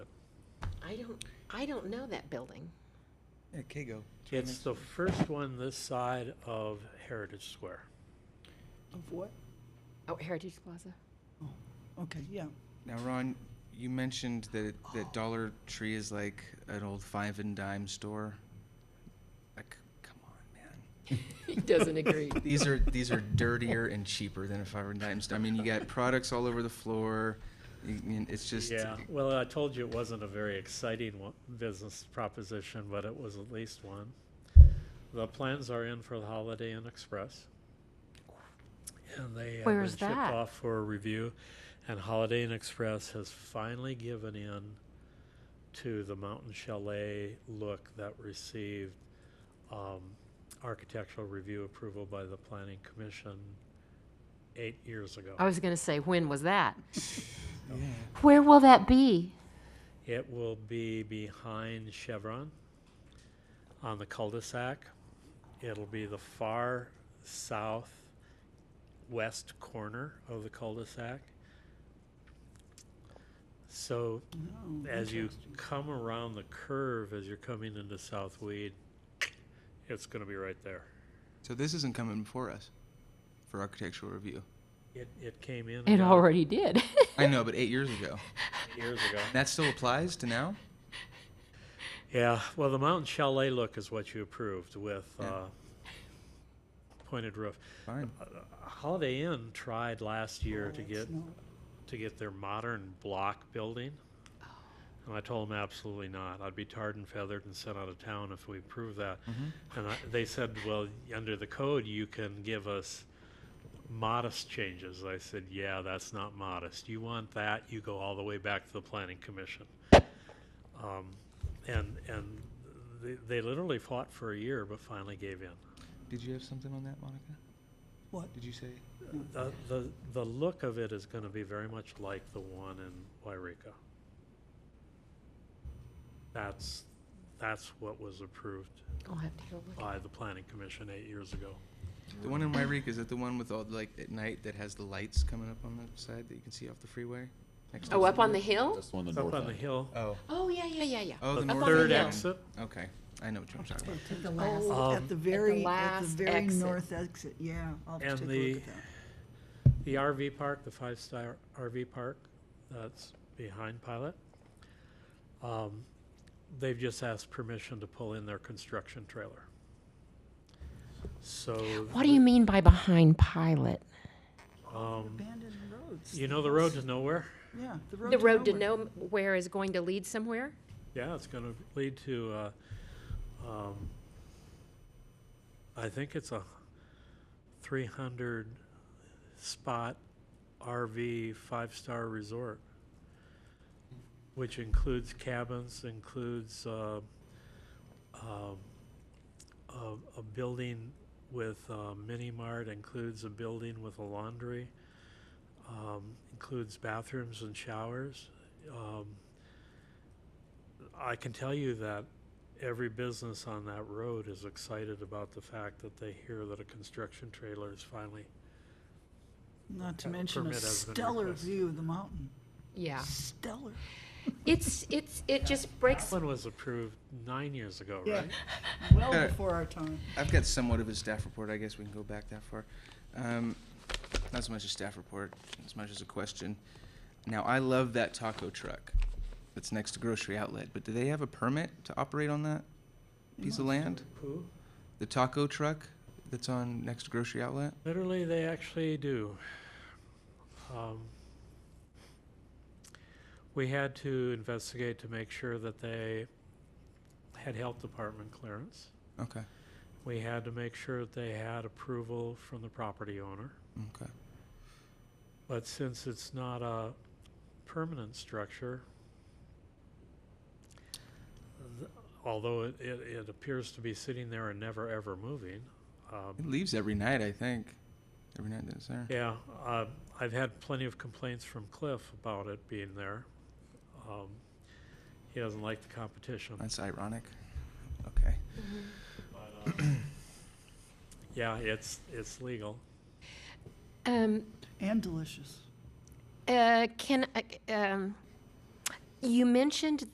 I don't know that building. Yeah, Kago. It's the first one this side of Heritage Square. Of what? Oh, Heritage Plaza. Okay, yeah. Now, Ron, you mentioned that it, that Dollar Tree is like an old five and dime store. Like, come on, man. He doesn't agree. These are these are dirtier and cheaper than a five and dime store. I mean, you got products all over the floor. You, you- it's just Yeah, well, I told you it wasn't a very exciting one, business proposition, but it was at least one. The plans are in for the Holiday Inn Express. And they have been Where's shipped that? off for a review, and Holiday Inn Express has finally given in to the mountain chalet look that received, um, architectural review approval by the planning commission eight years ago. I was going to say, when was that? Where will that be? It will be behind Chevron on the cul-de-sac. It'll be the far southwest corner of the cul-de-sac. So as you come around the curve, as you're coming into South Weed, it's going to be right there. so. This isn't coming before us for architectural review. It, it came in. and It got already did. I know, but eight years ago. Years ago. That still applies to now. Yeah, well, the mountain chalet look is what you approved with uh, pointed roof. Fine. Holiday Inn tried last year Oh, to get to get their modern block building, and I told them absolutely not. I'd be tarred and feathered and sent out of town if we approved that. And I, they said, "Well, under the code, you can give us modest changes." I said, "Yeah, that's not modest. You want that? You go all the way back to the Planning Commission." Um, and and they, they literally fought for a year, but finally gave in. Did you have something on that, Monica? What? Did you say? The, the, the look of it is going to be very much like the one in Wairika. That's, that's what was approved I'll have to go look. by the planning commission eight years ago. The one in Wairika is that the one with all the, like at night that has the lights coming up on the side that you can see off the freeway. Next to Oh, the- up on the hill? That's the one on the Up north on the end. hill, Oh. Oh, yeah, yeah, yeah, yeah. Oh, the the north third hill. end. exit, Okay, I know what you're talking about. At the last- Oh, Um, at the very, at the last very exit. north exit, yeah. I'll have And to take a the- look at that. the RV park, the five-star RV park that's behind Pilot. Um, They've just asked permission to pull in their construction trailer. So. What do you mean by behind pilot? um, Abandoned roads. You know the road to nowhere? Yeah, the road The road to nowhere. nowhere is going to lead somewhere? Yeah, it's going to lead to, uh, um, I think it's a 300 spot RV five star resort, which includes cabins, includes uh, um, a, a building with a mini mart, includes a building with a laundry, um, includes bathrooms and showers. Um, I can tell you that every business on that road is excited about the fact that they hear that a construction trailer is finally. Not to Uh, mention a permit has been stellar requested. view of the mountain. Yeah. Stellar. It's, it's, it just breaks. One was approved nine years ago, Yeah. right? Well Uh, before our time. I've got somewhat of a staff report. I guess we can go back that far. Um, not so much a staff report, as much as a question. Now, I love that taco truck that's next to grocery outlet, but do they have a permit to operate on that piece of land? Who? The taco truck that's on next to grocery outlet? Literally, they actually do. Um, We had to investigate to make sure that they had health department clearance. Okay, We had to make sure that they had approval from the property owner. okay. But since it's not a permanent structure, th- although it, it, it appears to be sitting there and never ever moving, um, It leaves every night, I think. Every night that it's there. yeah, uh, I've had plenty of complaints from Cliff about it being there. Um, he doesn't like the competition. That's ironic. Okay. Yeah, it's, it's legal. Um, And delicious. uh, can, I- um, you mentioned